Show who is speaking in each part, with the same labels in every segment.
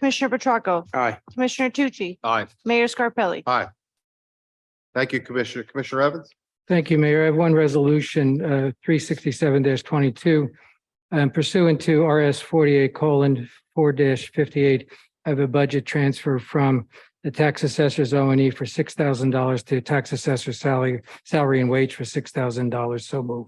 Speaker 1: Commissioner Petracca,
Speaker 2: Aye.
Speaker 1: Commissioner Tucci,
Speaker 2: Aye.
Speaker 1: Mayor Scarpelli.
Speaker 2: Aye. Thank you, Commissioner. Commissioner Evans?
Speaker 3: Thank you, Mayor. I have one resolution, uh, three sixty-seven twenty-two. um, Pursuant to RS forty-eight colon four fifty-eight, I have a budget transfer from the tax assessor's O and E for six thousand dollars to tax assessor's salary, salary and wage for six thousand dollars. So move.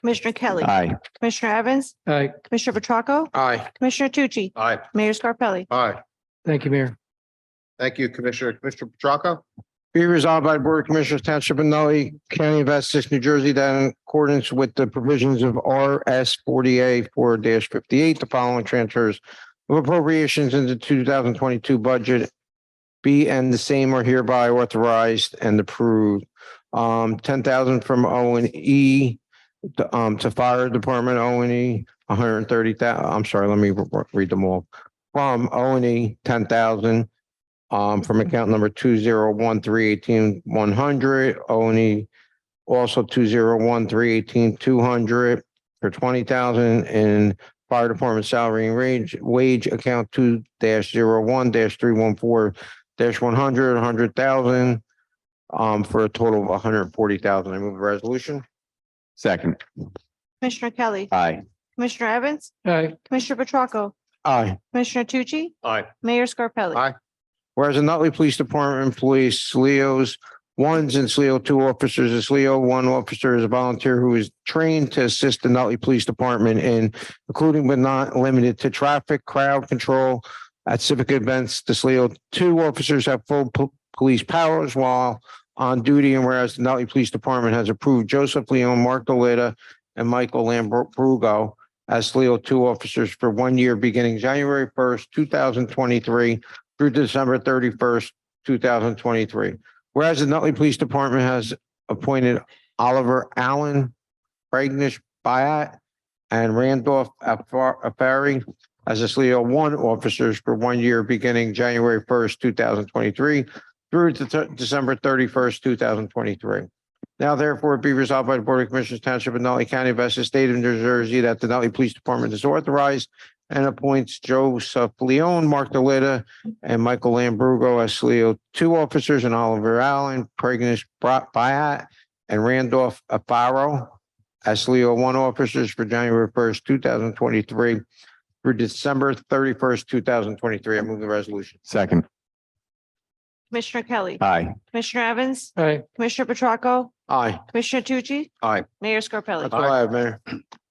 Speaker 1: Commissioner Kelly.
Speaker 4: aye,
Speaker 1: Commissioner Evans,
Speaker 3: Aye.
Speaker 1: Commissioner Petracca,
Speaker 2: Aye.
Speaker 1: Commissioner Tucci,
Speaker 2: Aye.
Speaker 1: Mayor Scarpelli.
Speaker 2: Aye.
Speaker 3: Thank you, Mayor.
Speaker 2: Thank you, Commissioner. Commissioner Petracca?
Speaker 5: Be resolved by the Board of Commissioners Township of Nutley County of Essex, New Jersey, that in accordance with the provisions of RS forty-A four fifty-eight, the following transfers of appropriations into two thousand twenty-two budget be and the same are hereby authorized and approved. Um, ten thousand from O and E to, um, to Fire Department O and E, hundred and thirty I'm sorry, let me re- re- read them all. From O and E, ten thousand um, from account number two zero one three eighteen one hundred, only also two zero one three eighteen two hundred for twenty thousand in fire department salary and range, wage account two dash zero one dash three one four dash one hundred, a hundred thousand um, for a total of hundred and forty thousand. I move the resolution.
Speaker 4: second,
Speaker 1: Commissioner Kelly.
Speaker 4: aye,
Speaker 1: Commissioner Evans,
Speaker 3: Aye.
Speaker 1: Commissioner Petracca,
Speaker 5: Aye.
Speaker 1: Commissioner Tucci,
Speaker 2: Aye.
Speaker 1: Mayor Scarpelli.
Speaker 2: Aye.
Speaker 5: Whereas the Nutley Police Department employs SLEOs, ones and SLEO two officers, a SLEO one officer is a volunteer who is trained to assist the Nutley Police Department in, including but not limited to traffic, crowd control at civic events. The SLEO two officers have full po- police powers while on duty, and whereas the Nutley Police Department has approved Joseph Leon, Mark Delita, and Michael Lambrugo as SLEO two officers for one year beginning January first, two thousand twenty-three, through December thirty-first, two thousand twenty-three. Whereas the Nutley Police Department has appointed Oliver Allen, Pragnish Bayat, and Randolph Afar- Afari as a SLEO one officers for one year beginning January first, two thousand twenty-three through to th- December thirty-first, two thousand twenty-three. Now therefore be resolved by the Board of Commissioners Township of Nutley County of Essex State of New Jersey that the Nutley Police Department is authorized and appoints Joseph Leon, Mark Delita, and Michael Lambrugo as Leo, two officers, and Oliver Allen, Pregnus Byatt, and Randolph Afaro as Leo, one officers for January first, two thousand twenty-three through December thirty-first, two thousand twenty-three. I move the resolution.
Speaker 4: second,
Speaker 1: Commissioner Kelly.
Speaker 4: aye,
Speaker 1: Commissioner Evans,
Speaker 3: Aye.
Speaker 1: Commissioner Petracca,
Speaker 5: Aye.
Speaker 1: Commissioner Tucci.
Speaker 2: Aye.
Speaker 1: Mayor
Speaker 5: That's
Speaker 1: Scarpelli.
Speaker 5: all I have, Mayor.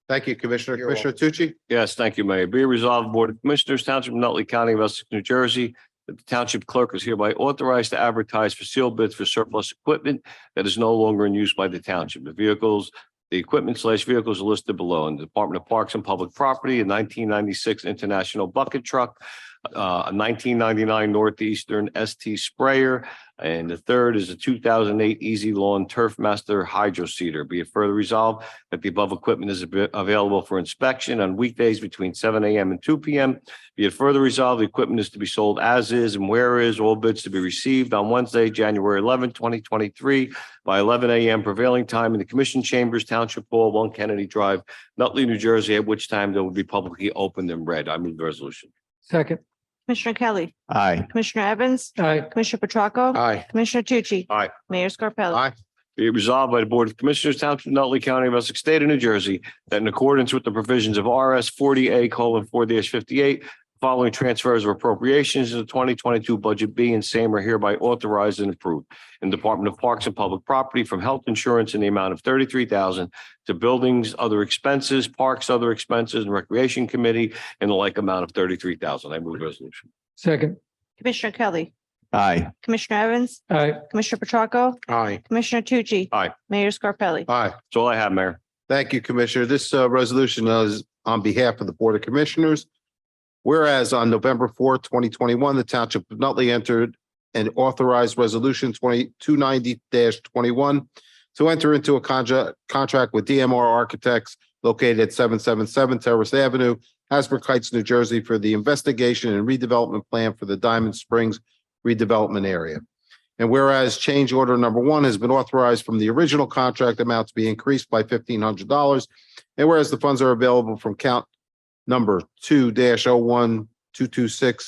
Speaker 2: Thank you, Commissioner.
Speaker 5: You're
Speaker 2: Commissioner Tucci?
Speaker 6: Yes, thank you, Mayor. Be resolved, Board of Commissioners, Township of Nutley County of Essex, New Jersey, that the Township Clerk is hereby authorized to advertise for sealed bids for surplus equipment that is no longer in use by the township. The vehicles, the equipment slash vehicles are listed below in the Department of Parks and Public Property, a nineteen ninety-six International Bucket Truck, uh, a nineteen ninety-nine Northeastern ST Sprayer, and the third is a two thousand eight Easy Lawn Turf Master Hydro Seeder. Be it further resolved that the above equipment is ab- available for inspection on weekdays between seven AM and two PM. Be it further resolved, the equipment is to be sold as is and where is, all bids to be received on Wednesday, January 11, twenty twenty-three by eleven AM prevailing time in the Commission Chambers Township Hall, One Kennedy Drive, Nutley, New Jersey, at which time they will be publicly opened and read. I move the resolution.
Speaker 3: Second.
Speaker 1: Commissioner Kelly,
Speaker 4: aye,
Speaker 1: Commissioner Evans,
Speaker 3: Aye.
Speaker 1: Commissioner Petracca,
Speaker 2: Aye.
Speaker 1: Commissioner Tucci.
Speaker 6: Aye.
Speaker 1: Mayor Scarpelli.
Speaker 2: Aye.
Speaker 6: Be it resolved by the Board of Commissioners, Township of Nutley County of Essex State of New Jersey, that in accordance with the provisions of RS forty A colon four fifty-eight, following transfers of appropriations to the twenty twenty-two budget B and same are hereby authorized and approved in Department of Parks and Public Property from health insurance in the amount of thirty-three thousand to buildings, other expenses, parks, other expenses, and Recreation Committee in the like amount of thirty-three thousand. I move the resolution.
Speaker 3: Second.
Speaker 1: Commissioner Kelly,
Speaker 4: aye,
Speaker 1: Commissioner Evans,
Speaker 3: Aye.
Speaker 1: Commissioner Petracca,
Speaker 2: Aye.
Speaker 1: Commissioner Tucci.
Speaker 6: Aye.
Speaker 1: Mayor Scarpelli.
Speaker 2: Aye.
Speaker 6: That's all I have, Mayor.
Speaker 2: Thank you, Commissioner. This uh, resolution is on behalf of the Board of Commissioners. Whereas on November fourth, twenty twenty-one, the Township of Nutley entered an authorized resolution twenty-two ninety twenty-one to enter into a contract, contract with DMR Architects located at seven seven seven Terrace Avenue, Hasbrook Heights, New Jersey, for the investigation and redevelopment plan for the Diamond Springs redevelopment area. And whereas change order number one has been authorized from the original contract amount to be increased by fifteen hundred dollars. And whereas the funds are available from count number two dash oh one two two six